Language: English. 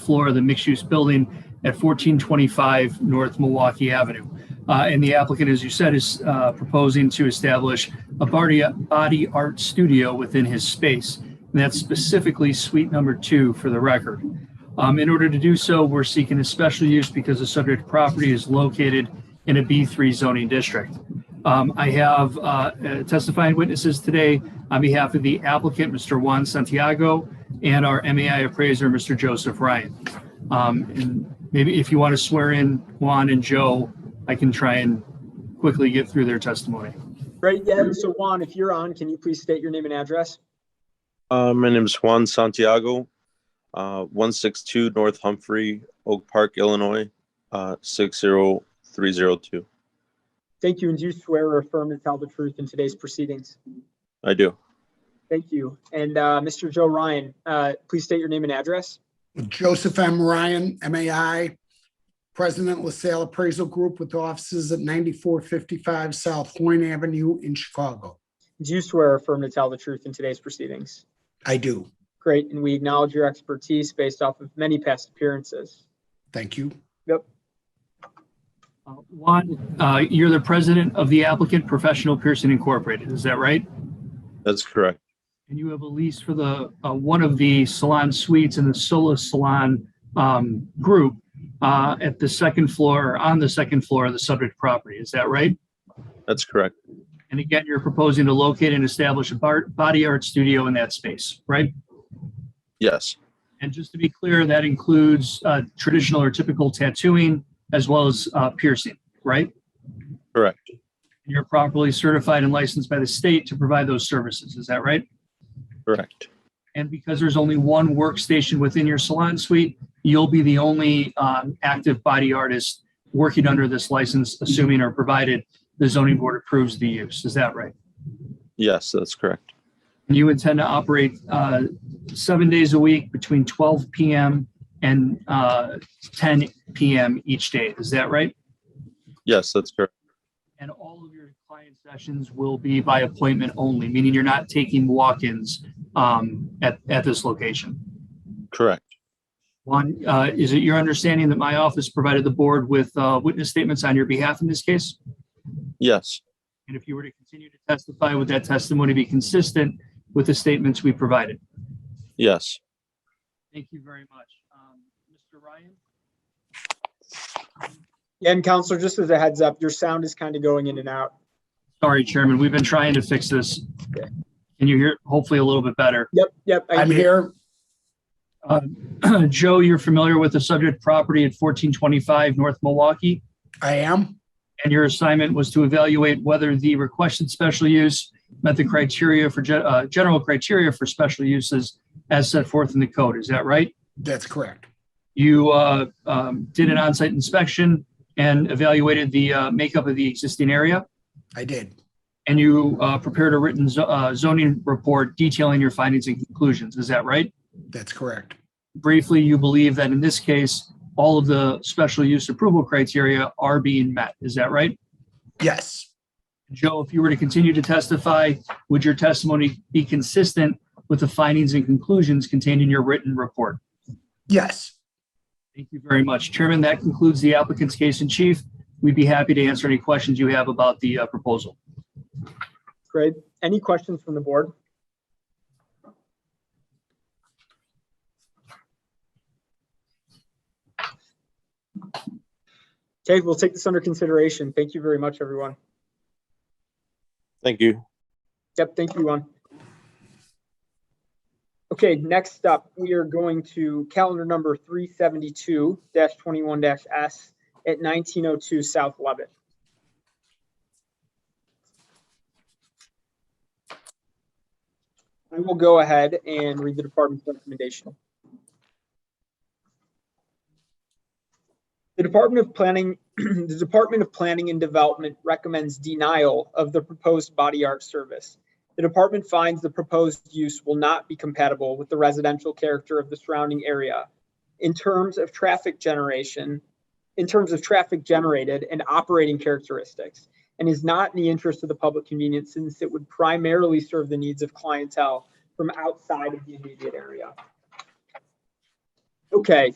floor of the mixed-use building at 1425 North Milwaukee Avenue. Uh, And the applicant, as you said, is uh, proposing to establish a body, body art studio within his space. And that's specifically suite number two for the record. Um, In order to do so, we're seeking a special use because the subject property is located in a B3 zoning district. Um, I have uh, uh, testifying witnesses today on behalf of the applicant, Mr. Juan Santiago, and our MAI appraiser, Mr. Joseph Ryan. Um, And maybe if you want to swear in Juan and Joe, I can try and quickly get through their testimony. Right, yeah, so Juan, if you're on, can you please state your name and address? Uh, my name is Juan Santiago, uh, 162 North Humphrey, Oak Park, Illinois, uh, 60302. Thank you, and do you swear or affirm to tell the truth in today's proceedings? I do. Thank you. And uh, Mr. Joe Ryan, uh, please state your name and address. Joseph M. Ryan, MAI, President LaSalle Appraisal Group with offices at 9455 South Horn Avenue in Chicago. Do you swear or affirm to tell the truth in today's proceedings? I do. Great, and we acknowledge your expertise based off of many past appearances. Thank you. Uh, Juan, uh, you're the president of the applicant Professional Pearson Incorporated, is that right? That's correct. And you have a lease for the, uh, one of the salon suites in the Sola Salon, um, group, uh, at the second floor, or on the second floor of the subject property, is that right? That's correct. And again, you're proposing to locate and establish a bar, body art studio in that space, right? Yes. And just to be clear, that includes, uh, traditional or typical tattooing as well as, uh, piercing, right? Correct. And You're properly certified and licensed by the state to provide those services, is that right? Correct. And because there's only one workstation within your salon suite, you'll be the only um, active body artist working under this license, assuming or provided the zoning board approves the use. Is that right? Yes, that's correct. And you intend to operate uh, seven days a week between 12 PM and uh, 10 PM each day. Is that right? Yes, that's correct. And all of your client sessions will be by appointment only, meaning you're not taking walk-ins um, at, at this location. Correct. Juan, uh, is it your understanding that my office provided the board with uh, witness statements on your behalf in this case? Yes. And if you were to continue to testify, would that testimony be consistent with the statements we provided? Yes. Thank you very much. Um, Mr. Ryan? And Counselor, just as a heads up, your sound is kind of going in and out. Sorry, Chairman, we've been trying to fix this. Can you hear, hopefully a little bit better? Yep, yep. I I'm hear- here. Uh, Joe, you're familiar with the subject property at 1425 North Milwaukee? I am. and your assignment was to evaluate whether the requested special use met the criteria for, gen- uh, general criteria for special uses as set forth in the code. Is that right? That's correct. You uh, um, did an on-site inspection and evaluated the uh, makeup of the existing area, I did. and you uh, prepared a written zo- uh, zoning report detailing your findings and conclusions. Is that right? That's correct. Briefly, you believe that in this case, all of the special use approval criteria are being met. Is that right? Yes, Joe, if you were to continue to testify, would your testimony be consistent with the findings and conclusions contained in your written report? yes. Thank you very much. Chairman, that concludes the applicant's case in chief. We'd be happy to answer any questions you have about the uh, proposal. Great. Any questions from the board? Okay, we'll take this under consideration. Thank you very much, everyone. Thank you. Yep, thank you, Juan. Okay, next up, we are going to calendar number three seventy-two twenty-one S at nineteen oh two South Lubbock. I will go ahead and read the department's recommendation. The Department of Planning, the Department of Planning and Development recommends denial of the proposed body art service. The department finds the proposed use will not be compatible with the residential character of the surrounding area in terms of traffic generation, in terms of traffic generated and operating characteristics, and is not in the interest of the public convenience since it would primarily serve the needs of clientele from outside of the immediate area. Okay,